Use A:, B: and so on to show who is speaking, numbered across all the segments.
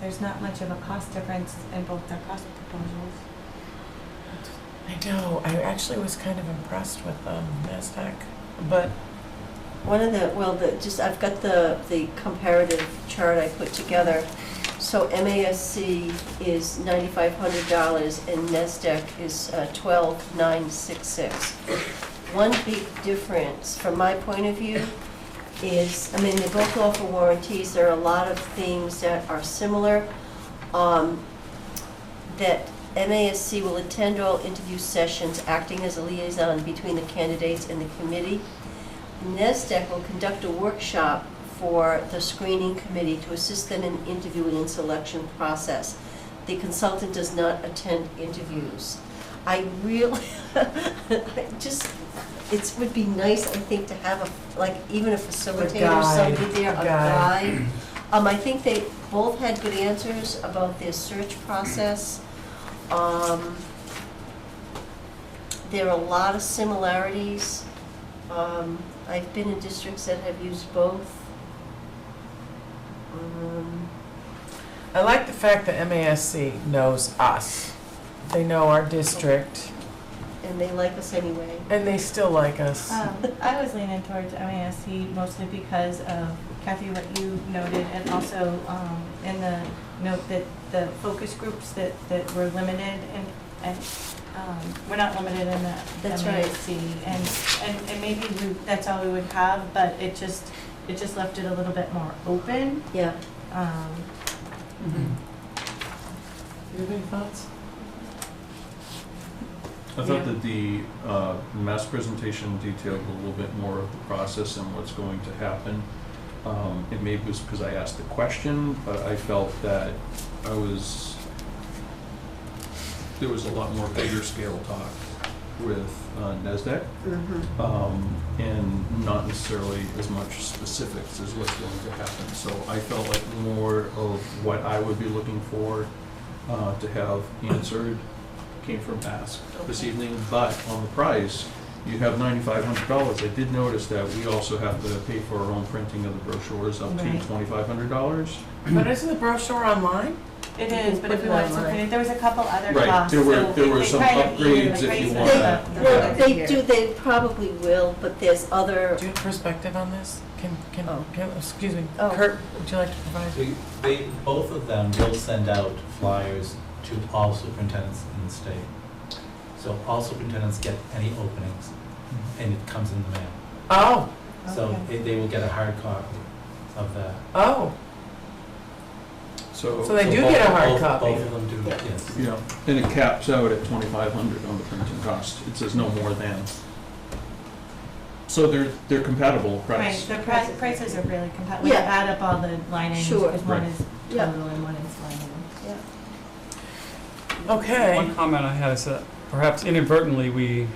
A: there's not much of a cost difference in both their cost proposals.
B: I know. I actually was kind of impressed with um, NASDAQ. But
C: One of the, well, the, just, I've got the, the comparative chart I put together. So MASC is ninety-five hundred dollars and NESDEC is uh, twelve nine six six. One big difference, from my point of view, is, I mean, they both offer warranties, there are a lot of things that are similar. Um, that MASC will attend all interview sessions, acting as a liaison between the candidates and the committee. E NESDEC will conduct a workshop for the screening committee to assist them in interviewing and selection process. The consultant does not attend interviews. I really, I just, it would be nice, I think, to have a, like, even a facilitator,
B: guide,
C: somebody there, a
B: a guide.
C: guide. Um, I think they both had good answers about their search process. Um, there are a lot of similarities. Um, I've been in districts that have used both. Um,
B: I like the fact that MASC knows us. They know our district,
C: and they like us anyway.
B: and they still like us.
C: Uh,
A: Um, I was leaning towards MASC mostly because of Kathy, what you noted, and also um, in the note that the focus groups that, that were limited and, and um, we're not limited in the
C: That's right.
A: MASC. And, and, and maybe we, that's all we would have, but it just, it just left it a little bit more open.
C: Yeah.
A: Um,
D: Mm-hmm.
B: you have any thoughts?
E: I thought that the uh, mass presentation detailed a little bit more of the process and what's going to happen. Um, It maybe was because I asked the question, but I felt that I was, there was a lot more bigger scale talk with uh, NASDAQ
C: Mm-hmm.
E: um, and not necessarily as much specifics as what's going to happen. So I felt like more of what I would be looking for uh, to have answered came from Ask this evening. But on the price, you have ninety-five hundred dollars. I did notice that we also have to pay for our own printing of the brochures up to
A: Right.
E: twenty-five hundred dollars.
B: But isn't the brochure online?
A: It is, but if we wanted to, print it, there was a couple other
E: Right,
A: costs.
E: there were-
A: so
E: there were
A: they
E: some
A: kind of even
E: upgrades
A: the
E: if you
A: prices
E: want
A: of
E: that.
A: the-
C: Well,
E: Yeah.
C: they do, they probably will, but there's other,
B: Do you have perspective on this? Can, can,
C: Oh.
B: can- excuse me,
C: Oh.
B: Kurt, would you like to provide?
F: They, they, both of them will send out flyers to all superintendents in the state. So all superintendents get any openings, and it comes in the mail.
B: Oh,
F: So
A: Okay.
F: they, they will get a hard copy of that.
B: oh,
E: So.
B: so they do
F: both-
B: get a hard
F: both-
B: copy.
F: Both of them do, yes.
E: Yeah, and it caps out at twenty-five hundred on the printing cost. It says no more than. So they're, they're compatible
A: Right,
E: price.
A: the pri- prices are really compatible, you
C: Yeah.
A: add up all the line items,
C: Sure.
A: because one
E: Right.
A: is
C: Yeah.
A: total and one is line item.
B: Okay,
D: One comment I had is that perhaps inadvertently we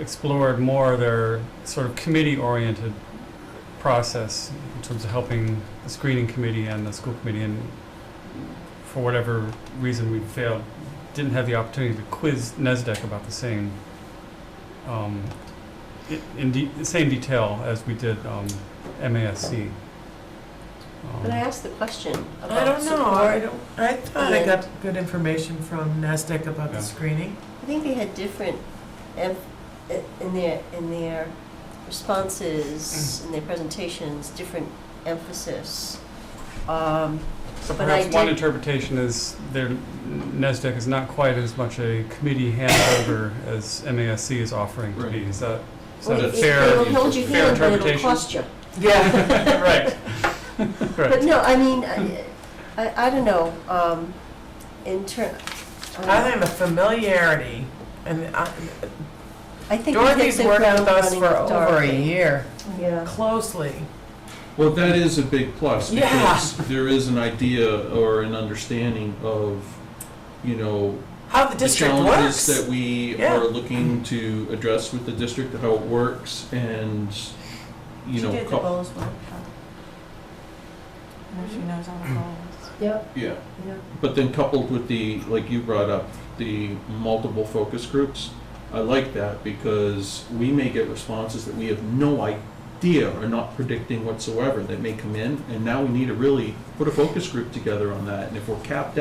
D: explored more their sort of committee-oriented process in terms of helping the screening committee and the school committee, and for whatever reason we failed, didn't have the opportunity to quiz NESDEC about the same, um, i- in de- the same detail as we did um, MASC. Um,
C: but I asked the question
B: I
C: about
B: don't know, I
C: support.
B: don't, I thought I
C: Yeah.
B: got good information from NASDAQ about the
D: Yeah.
B: screening.
C: I think they had different, em- eh, in their, in their
D: Mm.
C: responses, in their presentations, different emphasis. Um,
D: So
C: But I
D: perhaps one
C: did-
D: interpretation is their NESDEC is not quite as much a committee handover as MASC is offering to be.
E: Right.
D: Is that, is
C: well,
D: that a
C: it-
D: fair?
C: It'll hold your
D: fair
C: hand, but it'll
D: interpretation?
C: cost you.
B: Yeah,
D: Right.
C: But
D: Right.
C: no, I mean, I, I, I don't know, um, in turn,
B: I
C: I
B: think the familiarity, and I-
C: think we hit
B: Dorothy's
C: the
B: worked
C: ground
B: with us
C: running
B: for
C: with
B: over a
C: Dorothy.
B: year,
C: Yeah,
B: closely.
E: Well, that is a big plus
B: Yeah.
E: because there is an idea or an understanding of, you know,
B: How the
E: the
B: district
E: challenges
B: works.
E: that we
B: Yeah.
E: are looking to address with the district, how it works and, you know.
A: She did the
E: co-
A: goals workshop. And she knows all the goals.
C: yep,
E: Yeah.
C: yep.
E: But then coupled with the, like you brought up, the multiple focus groups, I like that because we may get responses that we have no idea or not predicting whatsoever that may come in. And now we need to really put a focus group together on that. And if we're capped